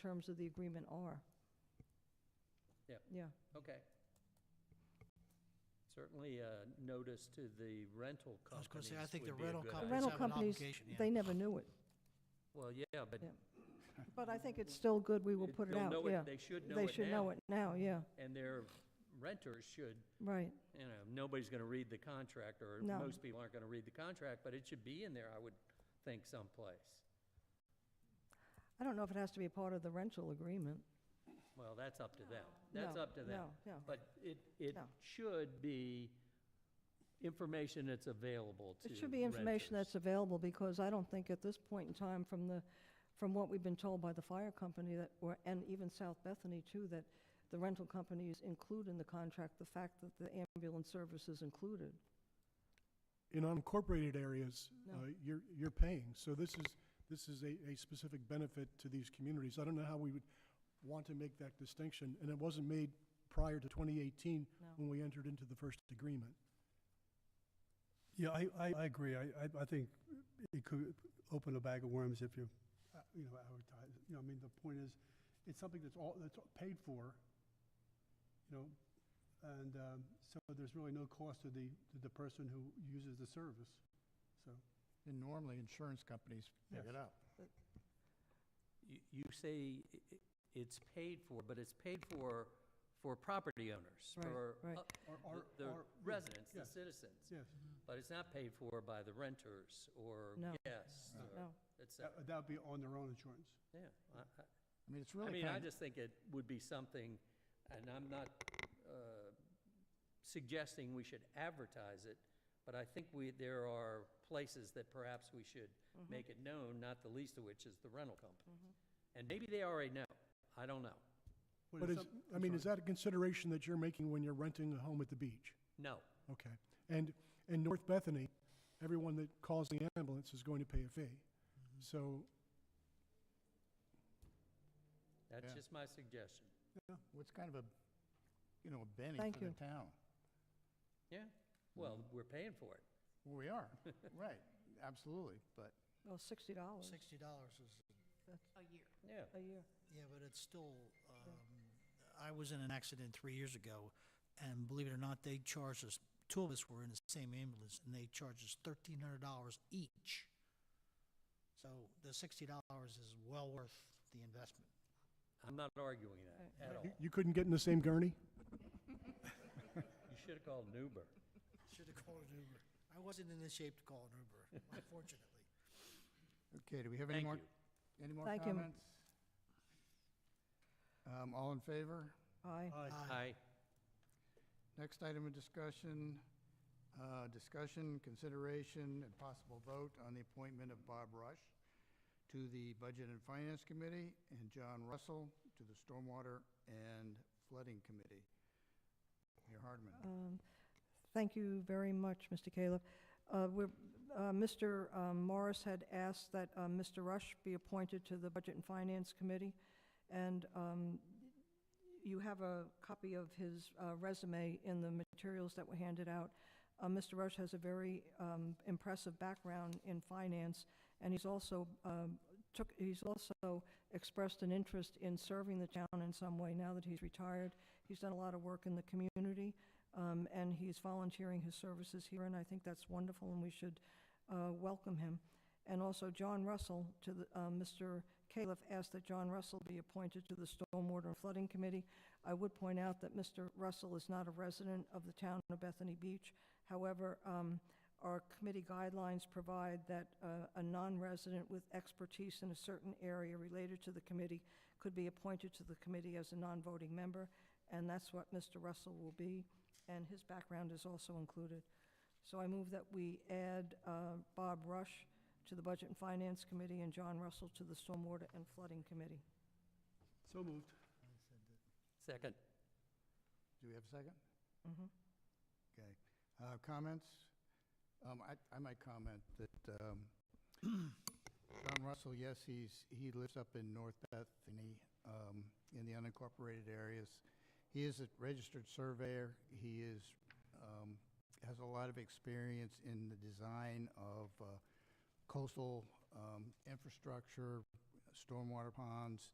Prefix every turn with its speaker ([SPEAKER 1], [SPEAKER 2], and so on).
[SPEAKER 1] terms of the agreement are.
[SPEAKER 2] Yep.
[SPEAKER 1] Yeah,
[SPEAKER 2] Okay. Certainly a notice to the rental
[SPEAKER 3] I was
[SPEAKER 2] companies
[SPEAKER 3] gonna say, I think the
[SPEAKER 2] would be a
[SPEAKER 3] rental
[SPEAKER 2] good
[SPEAKER 1] the
[SPEAKER 2] idea.
[SPEAKER 3] companies
[SPEAKER 1] rental
[SPEAKER 3] have an
[SPEAKER 1] companies,
[SPEAKER 3] obligation, yeah.
[SPEAKER 1] they never knew it,
[SPEAKER 2] Well, yeah, but.
[SPEAKER 1] Yeah. but I think it's still good, we will put it
[SPEAKER 2] they'll
[SPEAKER 1] out,
[SPEAKER 2] know
[SPEAKER 1] yeah.
[SPEAKER 2] They should know it now.
[SPEAKER 1] They should know it now, yeah,
[SPEAKER 2] And their renters should,
[SPEAKER 1] right,
[SPEAKER 2] you know, nobody's going to read the contract, or
[SPEAKER 1] No.
[SPEAKER 2] most people aren't going to read the contract, but it should be in there, I would think someplace.
[SPEAKER 1] I don't know if it has to be a part of the rental agreement.
[SPEAKER 2] Well, that's up to them. That's
[SPEAKER 1] No,
[SPEAKER 2] up to them.
[SPEAKER 1] No, no,
[SPEAKER 2] But it, it
[SPEAKER 1] No.
[SPEAKER 2] should be information that's available to
[SPEAKER 1] it should be information
[SPEAKER 2] renters.
[SPEAKER 1] that's available, because I don't think at this point in time, from the, from what we've been told by the fire company that, or, and even South Bethany too, that the rental companies include in the contract the fact that the ambulance service is included.
[SPEAKER 4] in unincorporated areas,
[SPEAKER 1] No.
[SPEAKER 4] uh, you're, you're paying. So this is, this is a, a specific benefit to these communities. I don't know how we would want to make that distinction, and it wasn't made prior to 2018
[SPEAKER 1] No.
[SPEAKER 4] when we entered into the first agreement.
[SPEAKER 5] Yeah, I, I, I agree. I, I, I think it could open a bag of worms if you, uh, you know, advertise. it. You know, I mean, the point is, it's something that's all, that's all paid for, you know, and, um, so there's really no cost to the, to the person who uses the service, so.
[SPEAKER 6] And normally, insurance companies pick
[SPEAKER 5] Yes.
[SPEAKER 6] it up.
[SPEAKER 2] You- You say i- i- it's paid for, but it's paid for, for property owners,
[SPEAKER 1] Right,
[SPEAKER 2] for
[SPEAKER 1] right.
[SPEAKER 2] uh,
[SPEAKER 5] Or,
[SPEAKER 2] the-
[SPEAKER 5] or,
[SPEAKER 2] the
[SPEAKER 5] or- yeah,
[SPEAKER 2] residents, the
[SPEAKER 5] yes,
[SPEAKER 2] citizens.
[SPEAKER 5] Yes,
[SPEAKER 2] But it's not paid for by the renters or
[SPEAKER 1] No.
[SPEAKER 2] guests
[SPEAKER 5] No.
[SPEAKER 2] or
[SPEAKER 1] No.
[SPEAKER 2] et cetera.
[SPEAKER 5] that, that'd be on their own insurance.
[SPEAKER 2] Yeah. I- I-
[SPEAKER 6] I mean, it's
[SPEAKER 2] I
[SPEAKER 6] really
[SPEAKER 2] mean, I
[SPEAKER 6] kind of,
[SPEAKER 2] just think it would be something, and I'm not uh, suggesting we should advertise it, but I think we, there are places that perhaps we should
[SPEAKER 6] Mm-hmm.
[SPEAKER 2] make it known, not the least of which is the rental company.
[SPEAKER 6] Mm-hmm.
[SPEAKER 2] And maybe they already know, I don't know.
[SPEAKER 5] What
[SPEAKER 4] But
[SPEAKER 5] if
[SPEAKER 4] is,
[SPEAKER 5] some-
[SPEAKER 4] I
[SPEAKER 5] I'm
[SPEAKER 4] mean,
[SPEAKER 5] sorry.
[SPEAKER 4] is that a consideration that you're making when you're renting a home at the beach?
[SPEAKER 2] No,
[SPEAKER 4] Okay. And in North Bethany, everyone that calls the ambulance is going to pay a fee.
[SPEAKER 6] Mm-hmm.
[SPEAKER 4] So
[SPEAKER 2] that's
[SPEAKER 6] Yeah.
[SPEAKER 2] just my suggestion.
[SPEAKER 6] it's kind of a, you know, a Benny
[SPEAKER 1] Thank
[SPEAKER 6] for
[SPEAKER 1] you.
[SPEAKER 6] the town.
[SPEAKER 2] Yeah, well, we're paying for it.
[SPEAKER 6] We are, right, absolutely, but
[SPEAKER 1] Oh, sixty dollars
[SPEAKER 3] Sixty dollars is,
[SPEAKER 2] Yeah,
[SPEAKER 1] a year.
[SPEAKER 3] yeah, but it's still, um, I was in an accident three years ago, and believe it or not, they charged us, two of us were in the same ambulance, and they charged us thirteen hundred dollars each. So the sixty dollars is well worth the investment.
[SPEAKER 2] I'm not arguing that at all.
[SPEAKER 4] you- you couldn't get in the same gurney?
[SPEAKER 2] You should have called an Uber.
[SPEAKER 3] Should have called an Uber. I wasn't in the shape to call an Uber, unfortunately.
[SPEAKER 6] Okay, do we have any
[SPEAKER 2] Thank
[SPEAKER 6] more,
[SPEAKER 2] you.
[SPEAKER 6] any more
[SPEAKER 1] Thank you.
[SPEAKER 6] comments? Um, all in favor?
[SPEAKER 1] Aye.
[SPEAKER 3] Aye.
[SPEAKER 2] Aye.
[SPEAKER 6] Next item of discussion, uh, discussion, consideration, and possible vote on the appointment of Bob Rush to the Budget and Finance Committee and John Russell to the Stormwater and Flooding Committee. Mayor Hardman.
[SPEAKER 1] Um, Thank you very much, Mr. Caleb. Uh, we're- uh, Mr. um, Morris had asked that um, Mr. Rush be appointed to the Budget and Finance Committee, and um, you have a copy of his uh, resume in the materials that were handed out. Uh, Mr. Rush has a very um, impressive background in finance, and he's also um, took, he's also expressed an interest in serving the town in some way now that he's retired. He's done a lot of work in the community, um, and he's volunteering his services here, and I think that's wonderful, and we should uh, welcome him. And also John Russell to the, uh, Mr. Califf asked that John Russell be appointed to the Stormwater and Flooding Committee. I would point out that Mr. Russell is not a resident of the town of Bethany Beach. However, um, our committee guidelines provide that uh, a non-resident with expertise in a certain area related to the committee could be appointed to the committee as a non-voting member, and that's what Mr. Russell will be, and his background is also included. So I move that we add uh, Bob Rush to the Budget and Finance Committee and John Russell to the Stormwater and Flooding Committee.
[SPEAKER 5] So moved.
[SPEAKER 2] Second.
[SPEAKER 6] Do we have a second?
[SPEAKER 1] Mhm.
[SPEAKER 6] Okay. Uh, Comments? Um, I I might comment that um, John Russell, yes, he's, he lives up in North Bethany um, in the unincorporated areas. He is a registered surveyor. He is, um, has a lot of experience in the design of uh, coastal um, infrastructure, stormwater ponds,